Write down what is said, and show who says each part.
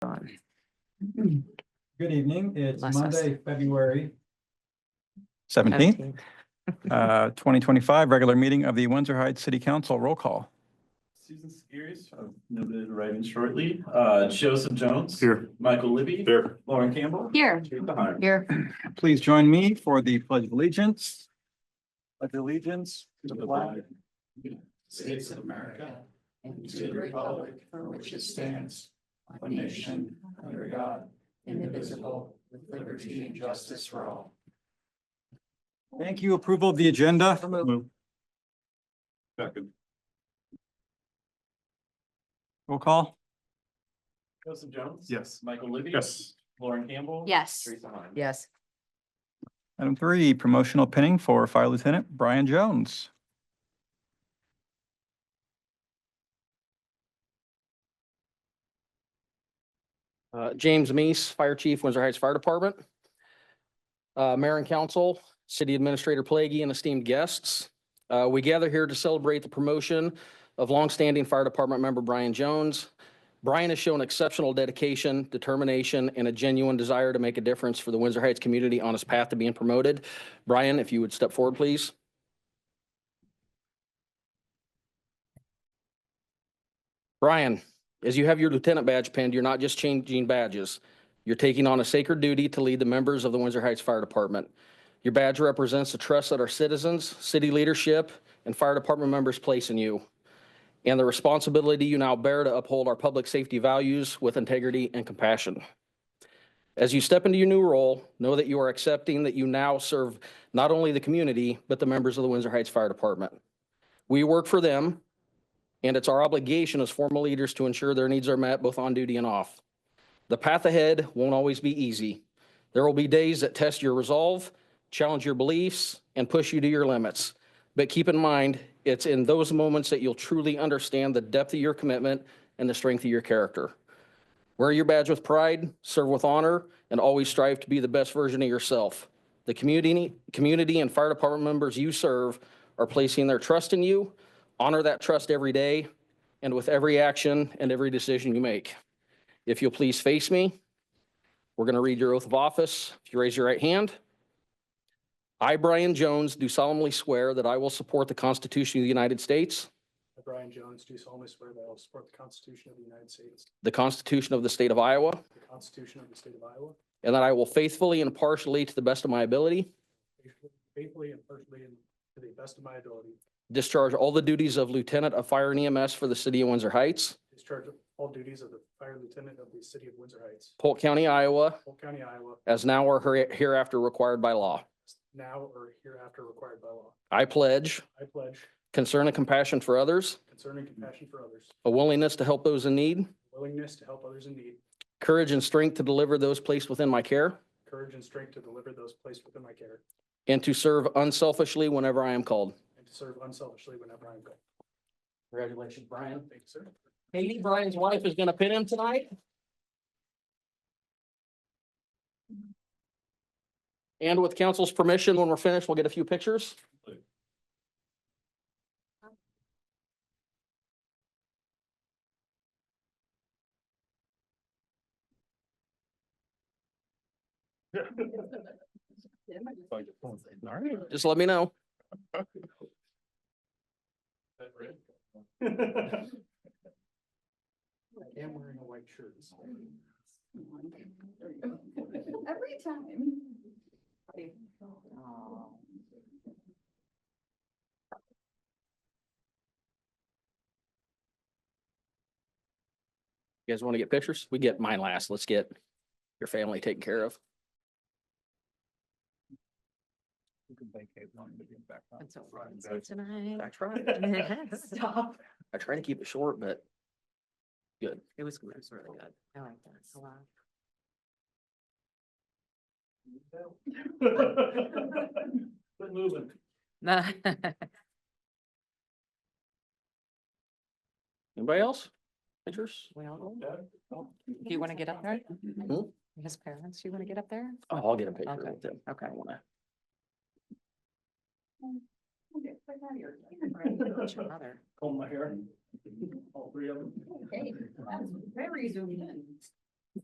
Speaker 1: Good evening. It's
Speaker 2: Bless us.
Speaker 1: Monday, February
Speaker 3: Seventeenth, uh, twenty twenty-five, regular meeting of the Windsor Heights City Council roll call.
Speaker 4: Susan Skiris, I've noted arriving shortly, uh, Joseph Jones.
Speaker 5: Here.
Speaker 4: Michael Libby.
Speaker 5: Here.
Speaker 4: Lauren Campbell.
Speaker 2: Here,
Speaker 4: Kate Behar.
Speaker 2: here.
Speaker 3: Please join me for the pledge of allegiance. Pledge allegiance to the flag
Speaker 4: States of America and to the republic for which it stands, one nation, under God, indivisible, with liberty and justice for all.
Speaker 3: Thank you. Approval of the agenda.
Speaker 5: Second.
Speaker 3: Roll call.
Speaker 4: Joseph Jones.
Speaker 5: Yes.
Speaker 4: Michael Libby.
Speaker 5: Yes.
Speaker 4: Lauren Campbell.
Speaker 2: Yes,
Speaker 4: Teresa Harms.
Speaker 2: yes.
Speaker 3: Item three, promotional pinning for Fire Lieutenant Brian Jones.
Speaker 6: Uh, James Meese, Fire Chief, Windsor Heights Fire Department. Uh, Mayor and Council, City Administrator Plaguey, and esteemed guests. Uh, we gather here to celebrate the promotion of longstanding Fire Department member Brian Jones. Brian has shown exceptional dedication, determination, and a genuine desire to make a difference for the Windsor Heights community on his path to being promoted. Brian, if you would step forward, please. Brian, as you have your lieutenant badge pinned, you're not just changing badges. You're taking on a sacred duty to lead the members of the Windsor Heights Fire Department. Your badge represents the trust that our citizens, city leadership, and fire department members place in you, and the responsibility you now bear to uphold our public safety values with integrity and compassion. As you step into your new role, know that you are accepting that you now serve not only the community, but the members of the Windsor Heights Fire Department. We work for them, and it's our obligation as formal leaders to ensure their needs are met both on duty and off. The path ahead won't always be easy. There will be days that test your resolve, challenge your beliefs, and push you to your limits. But keep in mind, it's in those moments that you'll truly understand the depth of your commitment and the strength of your character. Wear your badge with pride, serve with honor, and always strive to be the best version of yourself. The community, community and fire department members you serve are placing their trust in you. Honor that trust every day and with every action and every decision you make. If you'll please face me, we're going to read your oath of office. If you raise your right hand. I, Brian Jones, do solemnly swear that I will support the Constitution of the United States,
Speaker 7: I, Brian Jones, do solemnly swear that I will support the Constitution of the United States,
Speaker 6: the Constitution of the State of Iowa,
Speaker 7: the Constitution of the State of Iowa,
Speaker 6: and that I will faithfully and impartially, to the best of my ability,
Speaker 7: faithfully and impartially and to the best of my ability,
Speaker 6: discharge all the duties of Lieutenant of Fire and EMS for the City of Windsor Heights,
Speaker 7: discharge all duties of the Fire Lieutenant of the City of Windsor Heights,
Speaker 6: Polk County, Iowa,
Speaker 7: Polk County, Iowa,
Speaker 6: as now or here- hereafter required by law.
Speaker 7: now or hereafter required by law.
Speaker 6: I pledge
Speaker 7: I pledge
Speaker 6: concern and compassion for others,
Speaker 7: concern and compassion for others,
Speaker 6: a willingness to help those in need,
Speaker 7: willingness to help others in need,
Speaker 6: courage and strength to deliver those placed within my care,
Speaker 7: courage and strength to deliver those placed within my care,
Speaker 6: and to serve unselfishly whenever I am called.
Speaker 7: and to serve unselfishly whenever I am called.
Speaker 6: Congratulations, Brian.
Speaker 7: Thank you, sir.
Speaker 6: Katie, Brian's wife is going to pin him tonight. And with council's permission, when we're finished, we'll get a few pictures. Just let me know.
Speaker 7: I am wearing a white shirt. this morning.
Speaker 8: Every time.
Speaker 6: You guys want to get pictures? We get mine last. Let's get your family taken care of.
Speaker 2: Tonight.
Speaker 8: Stop.
Speaker 6: I try to keep it short, but
Speaker 2: It was, it was really good. I like that a lot.
Speaker 4: Quit moving.
Speaker 6: anybody else? Pictures?
Speaker 2: Well, do you want to get up there? His parents, you want to get up there?
Speaker 6: Oh, I'll get a picture
Speaker 2: Okay.
Speaker 6: with them.
Speaker 2: Okay.
Speaker 6: I don't wanna-
Speaker 2: It's your mother.
Speaker 4: Comb my hair. All three of them.
Speaker 8: Hey, that's Very zoomed in.